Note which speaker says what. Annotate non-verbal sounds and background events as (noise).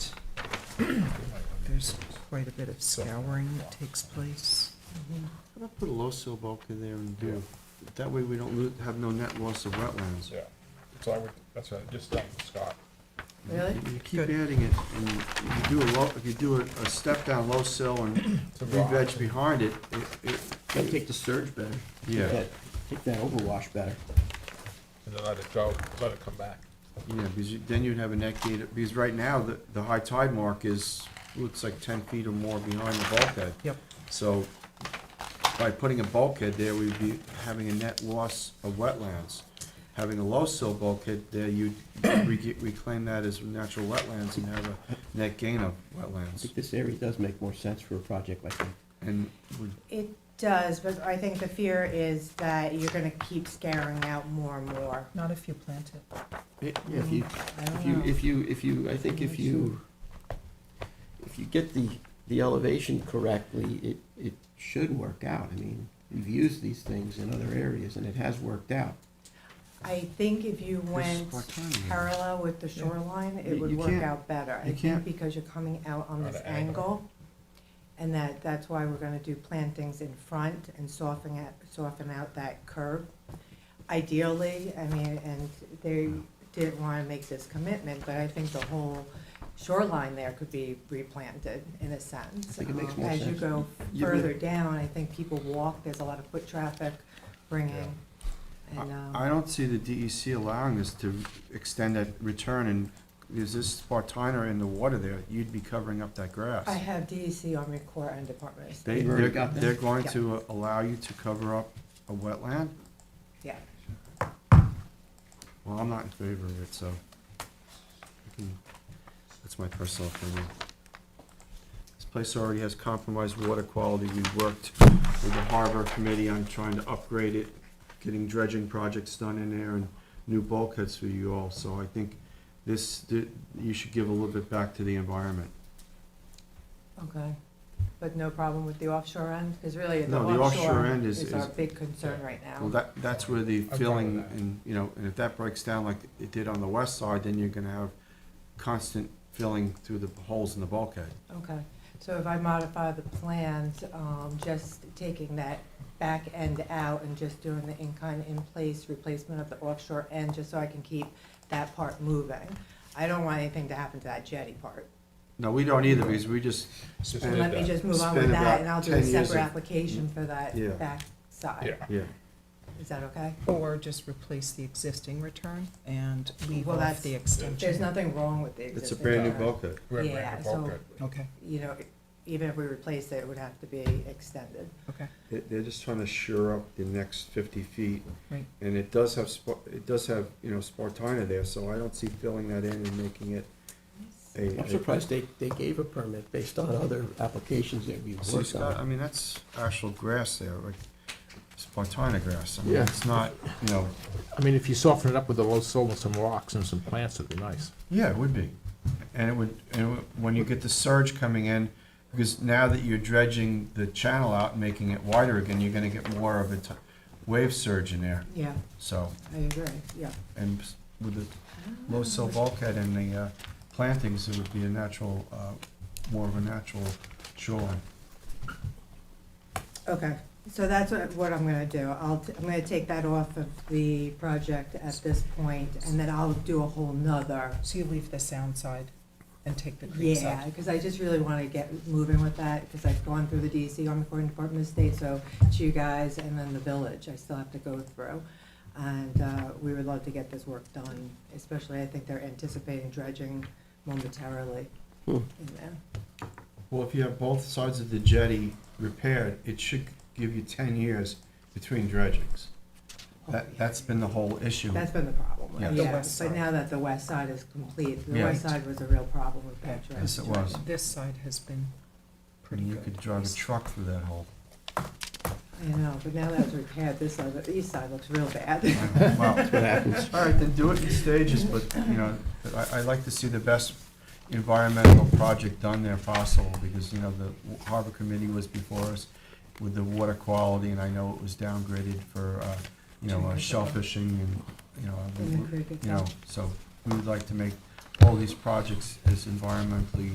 Speaker 1: There's quite a bit of scouring that takes place.
Speaker 2: How about put a low sill bulk in there and do, that way we don't lo- have no net loss of wetlands.
Speaker 3: Yeah, so I would, that's what I just done, with Scott.
Speaker 4: Really?
Speaker 2: You keep
Speaker 1: Good.
Speaker 2: adding it, and if you do a low, if you do a, a step down low sill and
Speaker 3: To rock.
Speaker 2: re-veg behind it, it,
Speaker 5: Gotta take the surge better. Take
Speaker 2: Yeah.
Speaker 5: that- Take that overwash better.
Speaker 3: And then let it go, let it come back.
Speaker 2: Yeah, because you- then you'd have a net gate, because right now, the, the high tide mark is, looks like ten feet or more behind the bulkhead.
Speaker 1: Yep.
Speaker 2: So by putting a bulkhead there, we'd be having a net loss of wetlands. Having a low sill bulkhead there, you'd re- reclaim that as natural wetlands and have a net gain of
Speaker 5: I
Speaker 2: wetlands.
Speaker 5: think this area does make more sense for a project like that.
Speaker 2: And would,
Speaker 4: It does, but I think the fear is that you're gonna keep scaring out more and more.
Speaker 1: Not if you plant it.
Speaker 5: Yeah, if you,
Speaker 4: I
Speaker 5: if
Speaker 4: don't
Speaker 5: you,
Speaker 4: know.
Speaker 5: if you, if you, I think if you, if you get the, the elevation correctly, it, it should work out. I mean, we've used these things in other areas and it has worked out.
Speaker 4: I think if you went
Speaker 2: what time is it?
Speaker 4: parallel with the shoreline,
Speaker 2: You-
Speaker 4: it would
Speaker 2: you
Speaker 4: work
Speaker 2: can't-
Speaker 4: out better. I
Speaker 2: you
Speaker 4: think
Speaker 2: can't-
Speaker 4: because you're coming out on
Speaker 3: On
Speaker 4: this
Speaker 3: an angle.
Speaker 4: angle, and that, that's why we're gonna do plantings in front and soften it, soften out that curve. Ideally, I mean, and they didn't wanna make this commitment, but I think the whole shoreline there could be replanted in a sense.
Speaker 5: I think it makes
Speaker 4: Um,
Speaker 5: more
Speaker 4: As you
Speaker 5: sense.
Speaker 4: go
Speaker 2: You would-
Speaker 4: further down, I think people walk, there's a lot of foot traffic bringing,
Speaker 2: I-
Speaker 4: and, um.
Speaker 2: I don't see the DEC allowing us to extend that return and, is this Spartina in the water there, you'd be covering up that grass.
Speaker 4: I have E DEC on record and Department of State,
Speaker 2: They,
Speaker 5: They've already
Speaker 2: they're,
Speaker 5: got that.
Speaker 2: they're going
Speaker 4: Yeah.
Speaker 2: to allow you to cover up a wetland?
Speaker 4: yeah.
Speaker 2: Well, I'm not in favor of it, so. I can- That's my personal opinion. This place already has compromised water quality. We worked with the harbor committee on trying to upgrade it, getting dredging projects done in there and new bulkheads for you all, so I think this, th- you should give a little bit back to the environment.
Speaker 4: Okay, but no problem with the offshore end, because really the
Speaker 2: No, the
Speaker 4: offshore
Speaker 2: offshore end is-
Speaker 4: is our
Speaker 2: is-
Speaker 4: big concern right
Speaker 2: Well,
Speaker 4: now.
Speaker 2: that, that's where the
Speaker 3: fine
Speaker 2: filling,
Speaker 3: with that.
Speaker 2: and, you know, and if that breaks down like it did on the west side, then you're gonna have constant filling through the holes in the bulkhead.
Speaker 4: Okay, so if I modify the plans, um, just taking that back end out and just doing the in-kind in-place replacement of the offshore end, just so I can keep that part moving. I don't want anything to happen to that jetty part.
Speaker 2: No, we don't either, because we just,
Speaker 3: Just
Speaker 2: And
Speaker 3: leave
Speaker 4: Let me
Speaker 3: that.
Speaker 4: just move on
Speaker 2: Spend
Speaker 4: with
Speaker 2: about
Speaker 4: that, and I'll do
Speaker 2: 10
Speaker 4: a
Speaker 2: years
Speaker 4: separate
Speaker 2: of-
Speaker 4: application for that
Speaker 2: Yeah.
Speaker 4: back side.
Speaker 3: Yeah,
Speaker 2: yeah,
Speaker 4: Is that okay?
Speaker 1: Or just replace the existing return and leave
Speaker 4: Well,
Speaker 1: off
Speaker 4: that's-
Speaker 1: the extension.
Speaker 4: There's nothing wrong with the existing.
Speaker 2: it's a brand new
Speaker 4: part.
Speaker 2: bulkhead.
Speaker 3: we have
Speaker 4: Yeah,
Speaker 3: random
Speaker 4: so-
Speaker 3: bulkhead.
Speaker 1: Okay,
Speaker 4: you know, even if we replace it, it would have to be extended.
Speaker 1: okay,
Speaker 2: They, they're just trying to shore up the next fifty feet,
Speaker 1: right.
Speaker 2: and it does have, Spar- it does have, you know, Spartina there, so I don't see filling that in and making it a.
Speaker 5: I'm surprised they, they gave a permit based on other applications that we've
Speaker 2: See,
Speaker 5: worked
Speaker 2: Scott,
Speaker 5: on.
Speaker 2: I mean, that's actual grass there, like Spartina grass, I mean,
Speaker 6: Yeah.
Speaker 2: it's not, you know,
Speaker 6: I mean, if you soften it up with a low sill and some rocks and some plants, it'd be nice.
Speaker 2: Yeah, it would be. And it would, and it would- when you get the surge coming in, because now that you're dredging the channel out and making it wider again, you're gonna get more of a t- wave surge in there,
Speaker 4: Yeah,
Speaker 2: so.
Speaker 4: I agree, yeah.
Speaker 2: And s- with the low sill bulkhead and the uh, plantings, it would be a natural, uh, more of a natural shoreline.
Speaker 4: Okay, so that's what, what I'm gonna do. I'll, t- I'm gonna take that off of the project at this point, and then I'll do a whole nother.
Speaker 1: So you leave the sound side and take the creek
Speaker 4: Yeah,
Speaker 1: side.
Speaker 4: because I just really wanna get moving with that, because I've gone through the DEC, Army Corps and Department of State, so it's you guys and then the village I still have to go through. And, uh, we would love to get this work done, especially I think they're anticipating dredging momentarily
Speaker 5: Hmm.
Speaker 4: in there.
Speaker 2: Well, if you have both sides of the jetty repaired, it should give you ten years between dredgings. That, that's been the whole issue.
Speaker 4: That's been the problem,
Speaker 2: Yeah.
Speaker 4: right?
Speaker 1: The
Speaker 4: yeah,
Speaker 1: west
Speaker 4: but
Speaker 1: side.
Speaker 4: now that the west side is complete, the
Speaker 2: Yeah.
Speaker 4: west side was a real problem with that dredge.
Speaker 2: Yes, it was.
Speaker 1: This side has been pretty
Speaker 2: And
Speaker 1: good.
Speaker 2: you could drive a truck through
Speaker 1: (laughs)
Speaker 2: that hole.
Speaker 4: I know, but now that it's repaired, this side, the east side looks real bad.
Speaker 2: Wow.
Speaker 5: That's what happens.
Speaker 2: All right, then do it in stages, but, you know, I, I like to see the best environmental project done there possible, because, you know, the harbor committee was before us with the water quality, and I know it was downgraded for, uh, you know, uh, shellfishing and, you know, I
Speaker 4: (laughs) In the
Speaker 2: mean,
Speaker 4: creek
Speaker 2: you know,
Speaker 4: itself.
Speaker 2: so we would like to make all these projects as environmentally